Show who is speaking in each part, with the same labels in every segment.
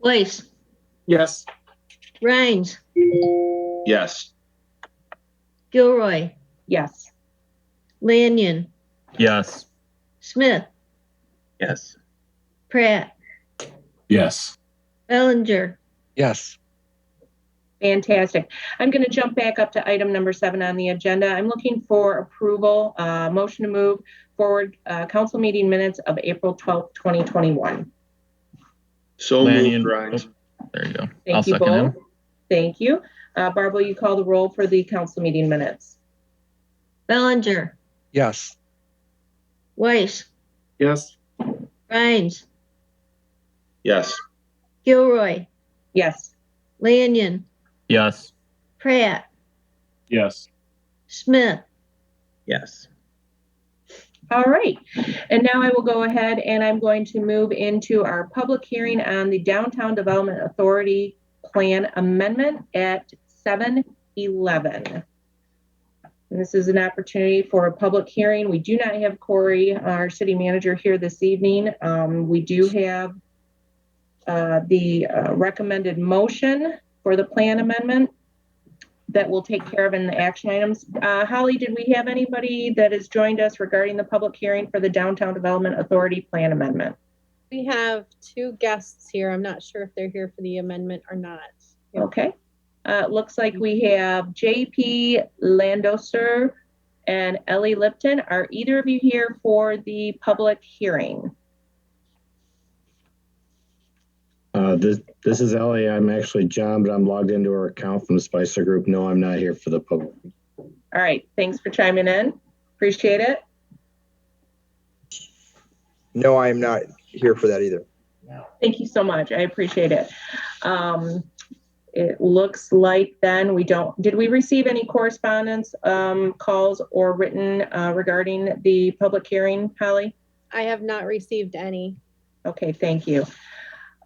Speaker 1: Weiss,
Speaker 2: Yes.
Speaker 1: Rhines,
Speaker 3: Yes.
Speaker 1: Gilroy,
Speaker 4: Yes.
Speaker 1: Lanyon,
Speaker 5: Yes.
Speaker 1: Smith,
Speaker 3: Yes.
Speaker 1: Pratt,
Speaker 5: Yes.
Speaker 1: Bellinger,
Speaker 6: yes,
Speaker 4: Fantastic. I'm going to jump back up to item number seven on the agenda. I'm looking for approval, uh, motion to move forward, uh, council meeting minutes of April 12th, 2021.
Speaker 3: So
Speaker 5: Lanyon.
Speaker 3: moved, Rhines.
Speaker 5: There you go. I'll
Speaker 4: Thank you
Speaker 5: second
Speaker 4: both.
Speaker 5: him.
Speaker 4: Thank you. Uh, Barb, will you call the roll for the council meeting minutes?
Speaker 1: Bellinger,
Speaker 6: yes,
Speaker 1: Weiss,
Speaker 2: Yes.
Speaker 1: Rhines,
Speaker 3: Yes.
Speaker 1: Gilroy,
Speaker 4: Yes.
Speaker 1: Lanyon,
Speaker 5: Yes.
Speaker 1: Pratt,
Speaker 5: Yes.
Speaker 1: Smith,
Speaker 3: Yes.
Speaker 4: All right. And now I will go ahead and I'm going to move into our public hearing on the Downtown Development Authority Plan Amendment at 7:11. And this is an opportunity for a public hearing. We do not have Corey, our city manager, here this evening. Um, We do have uh, the uh, recommended motion for the plan amendment that we'll take care of in the action items. Uh, Holly, did we have anybody that has joined us regarding the public hearing for the Downtown Development Authority Plan Amendment?
Speaker 7: We have two guests here. I'm not sure if they're here for the amendment or not.
Speaker 4: Okay. Uh, it looks like we have JP Landoser and Ellie Lipton. Are either of you here for the public hearing?
Speaker 8: Uh, this this is Ellie. I'm actually John, but I'm logged into our account from the Spicer Group. No, I'm not here for the public.
Speaker 4: All right. Thanks for chiming in. Appreciate it.
Speaker 9: No, I am not here for that either.
Speaker 4: Thank you so much. I appreciate it. Um, it looks like then we don't, did we receive any correspondence, um, calls or written, uh, regarding the public hearing, Holly?
Speaker 7: I have not received any.
Speaker 4: Okay, thank you.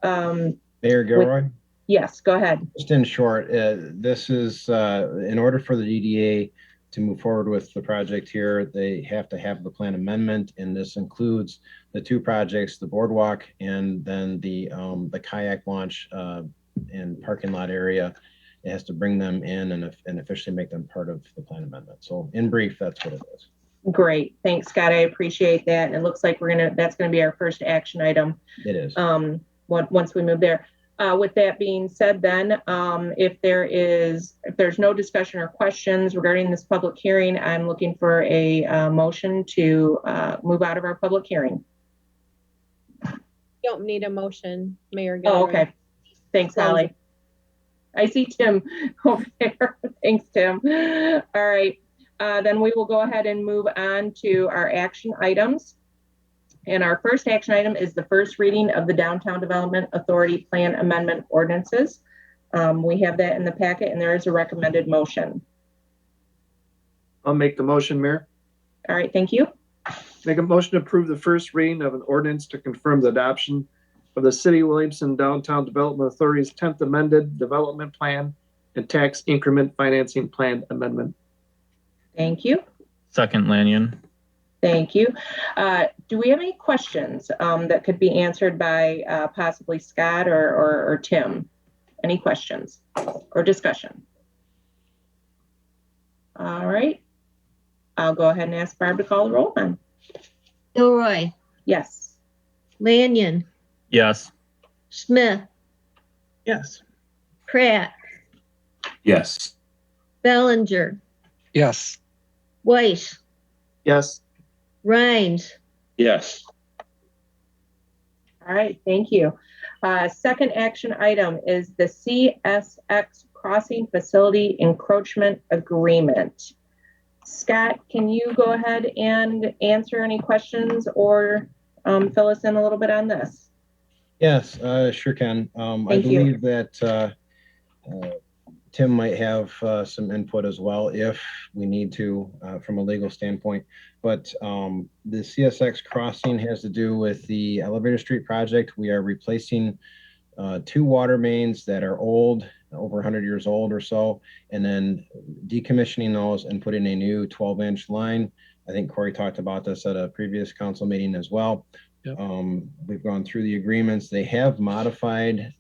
Speaker 4: Um,
Speaker 10: Mayor Gilroy,
Speaker 4: yes, go ahead.
Speaker 10: just in short, uh, this is, uh, in order for the DDA to move forward with the project here, they have to have the plan amendment, and this includes the two projects, the boardwalk and then the, um, the kayak launch, uh, and parking lot area. It has to bring them in and and officially make them part of the plan amendment. So in brief, that's what it is.
Speaker 4: Great. Thanks, Scott. I appreciate that. And it looks like we're gonna, that's gonna be our first action item.
Speaker 10: It is.
Speaker 4: um, on- once we move there. Uh, with that being said, then, um, if there is, if there's no discussion or questions regarding this public hearing, I'm looking for a uh, motion to uh, move out of our public hearing.
Speaker 7: Don't need a motion, Mayor Gilroy.
Speaker 4: Oh, okay. Thanks, Holly. I see Tim over there. Thanks, Tim. All right. Uh, then we will go ahead and move on to our action items. And our first action item is the first reading of the Downtown Development Authority Plan Amendment Ordinances. Um, we have that in the packet and there is a recommended motion.
Speaker 2: I'll make the motion, Mayor.
Speaker 4: All right, thank you.
Speaker 2: Make a motion to approve the first reading of an ordinance to confirm the adoption of the City of Williamson Downtown Development Authority's tenth amended development plan and tax increment financing plan amendment.
Speaker 4: Thank you.
Speaker 5: Second Lanyon.
Speaker 4: Thank you. Uh, do we have any questions um, that could be answered by uh, possibly Scott or, or, or Tim? Any questions or discussion? All right. I'll go ahead and ask Barb to call the roll then.
Speaker 1: Gilroy,
Speaker 4: Yes.
Speaker 1: Lanyon,
Speaker 5: Yes.
Speaker 1: Smith,
Speaker 3: Yes.
Speaker 1: Pratt,
Speaker 5: Yes.
Speaker 1: Bellinger,
Speaker 6: yes.
Speaker 1: Weiss,
Speaker 2: Yes.
Speaker 1: Rhines,
Speaker 3: Yes.
Speaker 4: All right, thank you. Uh, second action item is the CSX Crossing Facility Encroachment Agreement. Scott, can you go ahead and answer any questions or um, fill us in a little bit on this?
Speaker 10: Yes, uh, sure can. Um, I
Speaker 4: Thank you.
Speaker 10: believe that, uh, uh, Tim might have, uh, some input as well if we need to, uh, from a legal standpoint. But, um, the CSX crossing has to do with the elevator street project. We are replacing, uh, two water mains that are old, over hundred years old or so, and then decommissioning those and putting a new twelve inch line. I think Corey talked about this at a previous council meeting as well. Um, we've gone through the agreements. They have modified